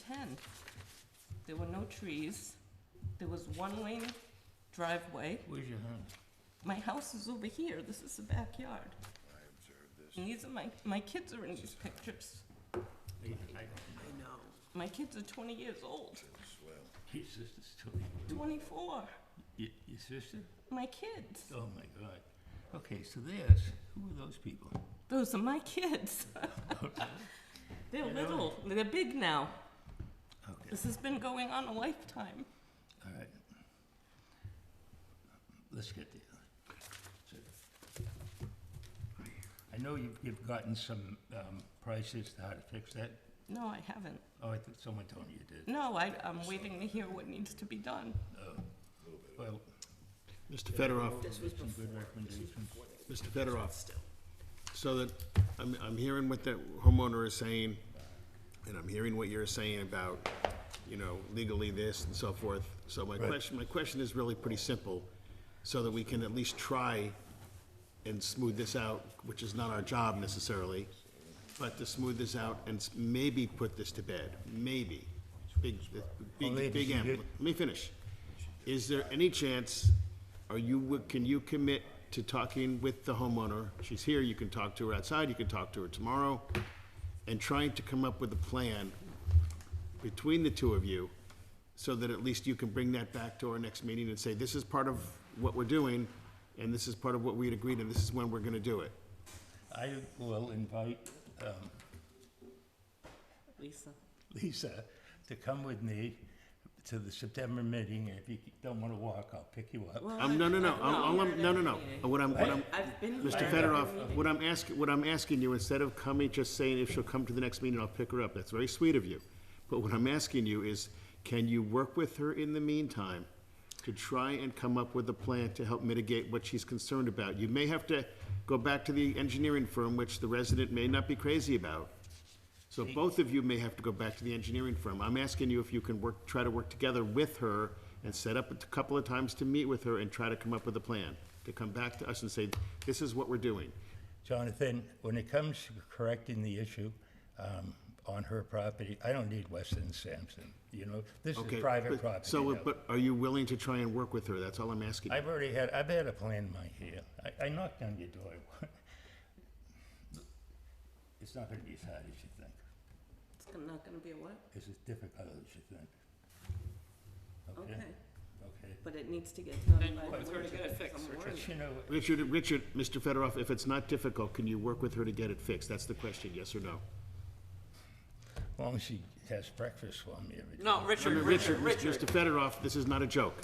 ten. There were no trees, there was one lane driveway. Where's your hand? My house is over here, this is the backyard. I observed this. And these are my, my kids are in these pictures. I know. My kids are twenty years old, As well. Your sister's twenty. twenty-four, Your, your sister? my kids. Oh, my God. Okay, so there's, who are those people? Those are my kids. They're You know- little, they're big now. Okay, This has been going on a lifetime. all right. Let's get there. So, I know you've, you've gotten some, um, prices to how to fix that. No, I haven't. Oh, I think someone told me you did. No, I, I'm waiting to hear what needs to be done. Oh, well. Mr. Fedorov, This was before. Some good recommendations. Mr. Fedorov, so that, I'm, I'm hearing what the homeowner is saying, and I'm hearing what you're saying about, you know, legally this and so forth. So my question, my question is really pretty simple, so that we can at least try and smooth this out, which is not our job necessarily, but to smooth this out and s- maybe put this to bed, maybe. Big, big, big M. Let me finish. Is there any chance, are you, can you commit to talking with the homeowner? She's here, you can talk to her outside, you can talk to her tomorrow, and trying to come up with a plan between the two of you, so that at least you can bring that back to our next meeting and say, this is part of what we're doing, and this is part of what we had agreed, and this is when we're gonna do it. I will invite, um, Lisa. Lisa to come with me to the September meeting, and if you don't wanna walk, I'll pick you up. Um, no, no, no, I'll- I'll- no, no, no, what I'm, what I'm, I've been. Mr. Fedorov, what I'm asking, what I'm asking you, instead of coming, just saying if she'll come to the next meeting, I'll pick her up, that's very sweet of you. But what I'm asking you is, can you work with her in the meantime to try and come up with a plan to help mitigate what she's concerned about? You may have to go back to the engineering firm, which the resident may not be crazy about. So both of you may have to go back to the engineering firm. I'm asking you if you can work, try to work together with her and set up a couple of times to meet with her and try to come up with a plan, to come back to us and say, this is what we're doing. Jonathan, when it comes to correcting the issue um, on her property, I don't need Weston Sampson, you know? This Okay, is private but- property. So, now. but are you willing to try and work with her? That's all I'm asking. I've already had, I've had a plan in my head. I- I knocked on your door. It's not going to be as hard as you think. It's not gonna be a what? It's as difficult as you think. Okay, Okay. but it needs to get done by. it's We're gonna fix. But you know, Richard, Richard, Mr. Fedorov, if it's not difficult, can you work with her to get it fixed? That's the question, yes or no? as long as she has breakfast for me every day. No, Richard, Richard, Mr. Richard, Fedorov, this is not a joke.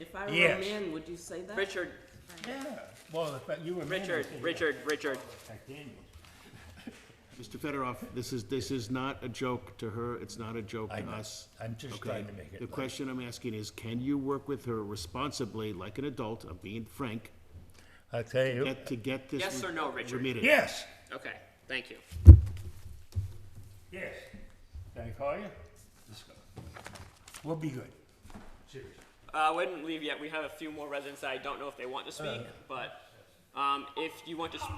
If I were a Yes. man, would you say that? Richard, Yeah, well, if I- you were. married, Richard, I'd say, Richard, Richard. like Daniel. Mr. Fedorov, this is, this is not a joke to her, it's not a joke I to know. us. I'm just Okay, trying to make it. the light. question I'm asking is, can you work with her responsibly, like an adult, I'm being frank, I'll tell you, get, to get this. Yes or no, Richard? remitted? yes. Okay, thank you. Yes. Can I call you? Let's go. We'll be good. Seriously. Uh, we didn't leave yet. We have a few more residents that I don't know if they want to speak, but um, if you want to, s-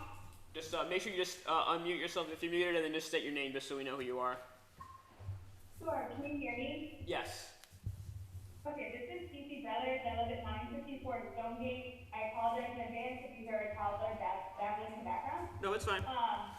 just uh, make sure you just uh, unmute yourself if you're muted, and then just state your name just so we know who you are. Sure, can you hear me? Yes. Okay, this is Cece Brothers, I live at nine fifty-four Stonegate. I apologize in advance if you hear a toddler back, babbling in the background. No, it's fine. Um,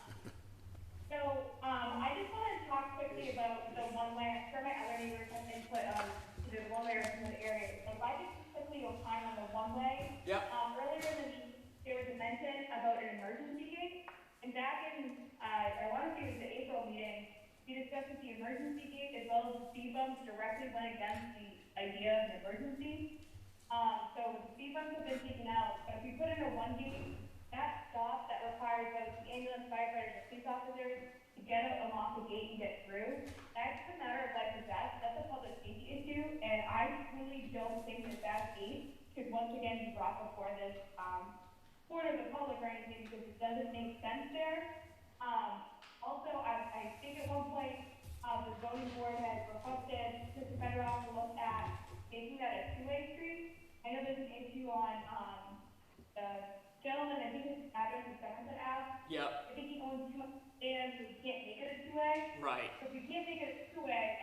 so, um, I just wanna talk quickly about the one way, for my other neighbors have input on the one way in the area. So if I could just quickly opine on the one way. Yeah. Um, earlier in the meeting, there was a mention about an emergency gate. And back in, uh, I wanna say it was the April meeting, we discussed that the emergency gate as well as the speed bumps directly went against the idea of an emergency. Um, so the speed bumps have been taken out, but if we put in a one gate, that stop that requires both the ambulance, firefighters, and police officers to get them off the gate and get through, that's a matter of life and death, that's a public safety issue, and I really don't think that that gate should once again be brought before this, um, board of the public or anything, because it doesn't make sense there. Um, also, I, I think at one point, uh, the zoning board had requested Mr. Federoff to look at making that a two-way street. I know there's an issue on, um, the gentleman, I think his address is Somerset Ave. Yep. I think he owns two, and we can't make it a two-way. Right. So if we can't make it a two-way,